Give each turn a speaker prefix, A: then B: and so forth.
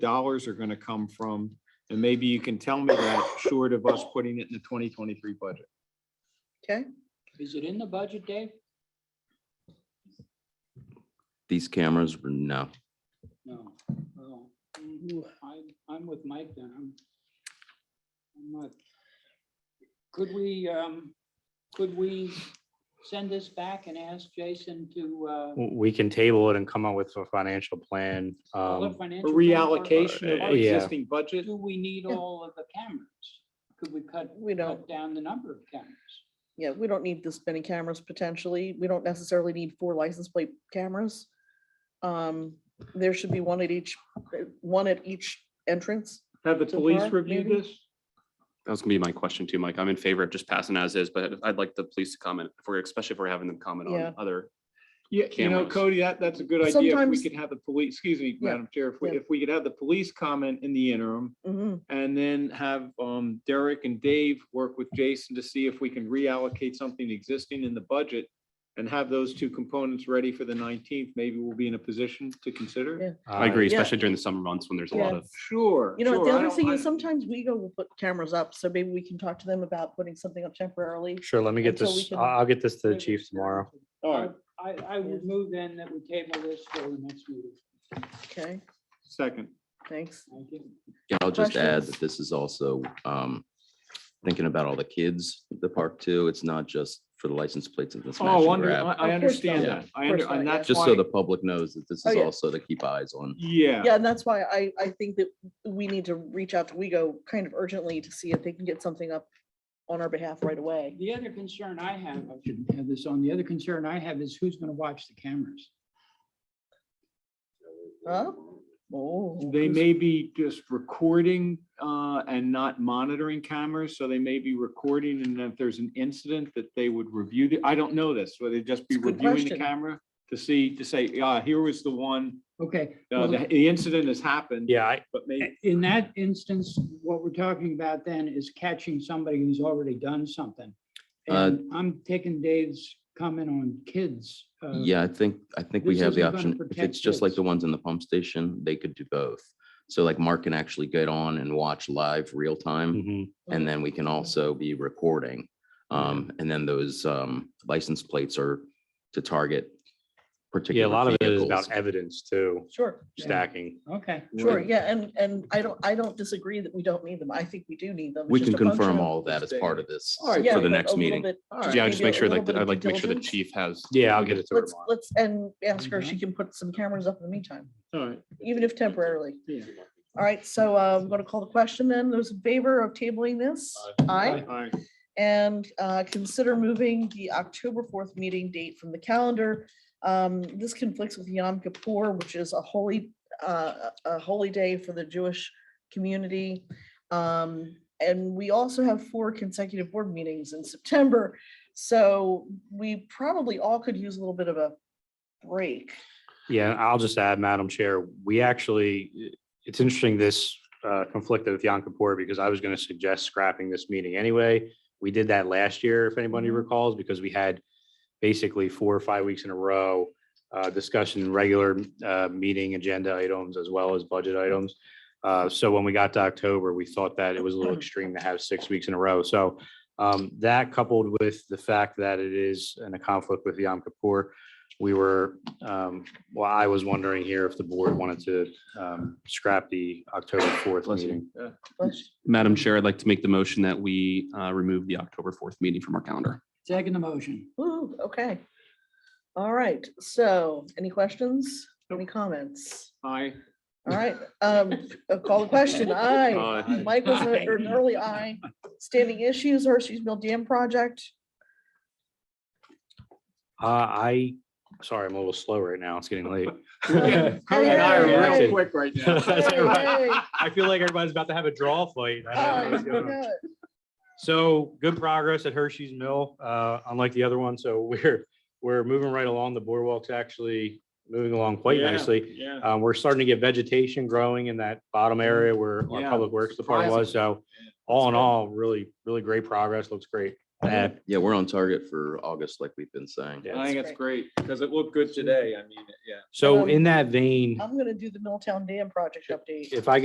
A: dollars are gonna come from? And maybe you can tell me that short of us putting it in the twenty twenty-three budget.
B: Okay,
C: Is it in the budget, Dave?
D: These cameras, were no.
C: No. Oh, mhm. I'm, I'm with Mike then. I'm. I'm not. Could we, um, could we send this back and ask Jason to, uh,
E: w- we can table it and come up with a financial plan.
C: pull a
E: Um,
A: A
C: financial? plan,
A: reallocation of
C: or-
A: our
C: or
E: Yeah.
A: existing budget?
C: Do we need
B: Yeah.
C: all of the cameras? Could we cut,
B: we don't,
C: cut down the number of cameras?
B: yeah, we don't need this many cameras potentially. We don't necessarily need four license plate cameras. Um, there should be one at each, uh, one at each entrance.
A: Have the
B: So far,
A: police review
B: maybe?
A: this?
F: That was gonna be my question too, Mike. I'm in favor of just passing as is, but I'd like the police to comment, if we're, especially if we're having them comment
B: Yeah.
F: on other.
A: Yeah, you know,
F: Cameras.
A: Cody, that, that's a good idea. If we
B: Sometimes-
A: could have the police, excuse me,
B: Yeah,
A: Madam Chair, if we,
B: yeah.
A: if we could have the police comment in the interim
B: Mhm.
A: and then have um, Derek and Dave work with Jason to see if we can reallocate something existing in the budget and have those two components ready for the nineteenth, maybe we'll be in a position to consider. it.
B: Yeah.
F: I agree,
B: Uh, Yeah.
F: especially during the summer months when there's a lot
B: Yeah.
F: of,
A: Sure.
B: You know,
A: sure,
B: the
A: I
B: other
A: don't
B: thing is
A: mind-
B: sometimes we go, we'll put cameras up, so maybe we can talk to them about putting something up temporarily.
E: uh, Sure, let me get
B: Until we
E: this,
B: can-
E: I- I'll get this to the chief tomorrow.
A: All right,
C: I, I would move then that we table this for the next meeting.
B: Okay,
A: second.
B: thanks.
C: Thank you.
D: Yeah, I'll just add
B: Questions?
D: that this is also um, thinking about all the kids at the park too. It's not just for the license plates of the smash
A: Oh,
D: and
A: under- I,
D: grab.
A: I
B: not.
A: understand
D: Yeah.
A: that. I
B: Of course
A: under, and
B: not, yeah.
A: that's
D: Just so
A: why,
D: the public knows that this
B: Oh,
D: is
B: yeah.
D: also to keep eyes on.
A: yeah,
B: Yeah, and that's why I, I think that we need to reach out to WeGo kind of urgently to see if they can get something up on our behalf right away.
C: The other concern I have, I shouldn't have this on, the other concern I have is who's gonna watch the cameras?
B: Huh? Oh,
A: they may be just recording, uh, and not monitoring cameras, so they may be recording, and if there's an incident that they would review the, I don't know this, whether they just be
B: It's a good
A: reviewing the
B: question.
A: camera to see, to say, yeah, here was the one,
C: Okay.
A: uh,
C: well,
A: the, the incident has happened.
E: Yeah, I,
A: But maybe,
C: In that instance, what we're talking about then is catching somebody who's already done something.
D: Uh,
C: And I'm taking Dave's comment on kids. uh,
D: Yeah, I think, I think we
C: this
D: have the
C: isn't gonna
D: option. If
C: protect
D: it's just like
C: kids.
D: the ones in the pump station, they could do both. So like Mark can actually get on and watch live real time
E: mhm.
D: and then we can also be recording. Um, and then those um license plates are to target
E: yeah,
D: particular
E: a lot of it is
D: vehicles.
E: about evidence too,
B: sure,
C: Yeah.
E: stacking.
C: Okay.
B: sure, yeah, and, and I don't, I don't disagree that we don't need them. I think we do need them. It's
D: We
B: just
D: can
B: a function
D: confirm
B: of-
D: all of that as part of this
A: All right,
B: Yeah,
D: for the
B: but a
D: next
B: little
D: meeting.
B: bit-
F: yeah, just
B: maybe
F: make
B: a
F: sure
B: little
F: like,
B: bit
F: I'd
B: of
F: like to make sure the
B: diligence.
F: chief has.
E: Yeah, I'll get it to her
B: Let's,
E: tomorrow.
B: let's, and ask her if she can put some cameras up in the meantime,
A: all right,
B: even if temporarily.
A: yeah.
B: All right, so uh, I'm going to call the question then. Those in favor of tabling this? Aye.
A: All right.
B: And uh, consider moving the October 4th meeting date from the calendar. Um, This conflicts with Yom Kippur, which is a holy, uh, a holy day for the Jewish community. Um, And we also have four consecutive board meetings in September. So we probably all could use a little bit of a break.
E: Yeah, I'll just add, Madam Chair, we actually, it's interesting this uh, conflicted with Yom Kippur because I was going to suggest scrapping this meeting anyway. We did that last year, if anybody
B: Mhm.
E: recalls, because we had basically four or five weeks in a row uh, discussion, regular uh, meeting agenda items as well as budget items. Uh, So when we got to October, we thought that it was a little extreme to have six weeks in a row. So um, that coupled with the fact that it is in a conflict with Yom Kippur, we were um, well, I was wondering here if the board wanted to um, scrap the October fourth
F: Bless you.
E: meeting.
B: Let's-
F: Madam Chair, I'd like to make the motion that we uh, remove the October fourth meeting from our calendar.
C: Second the motion.
B: Ooh, okay. All right, so any questions, any comments?
A: Aye.
B: All right, um, uh, call the question. Aye.
A: Aye.
B: Mike was a-
C: Aye.
B: an early aye. Standing issues, Hershey's Mill Dam project.
E: Uh, I, sorry, I'm a little slow right now. It's getting late.
A: Cody and I are real quick right now.
B: Yay, yay.
E: I feel like everybody's about to have a draw fight. I don't know
B: Aye,
E: what's going on.
B: good.
E: So good progress at Hershey's Mill, uh, unlike the other one. So we're, we're moving right along. The boardwalk's actually moving along quite
A: Yeah,
E: nicely.
A: Yeah.
E: Uh, we're starting to get vegetation growing in that bottom area where our
A: Yeah,
E: public works department was, so all in all, really, really great progress, looks great. Uh,
D: Yeah, we're on target for August, like we've been saying.
E: Yeah.
A: I think it's great because it looked good today. I mean, yeah.
E: So in that vein,
B: um, I'm gonna do the Milltown Dam project update.
E: if I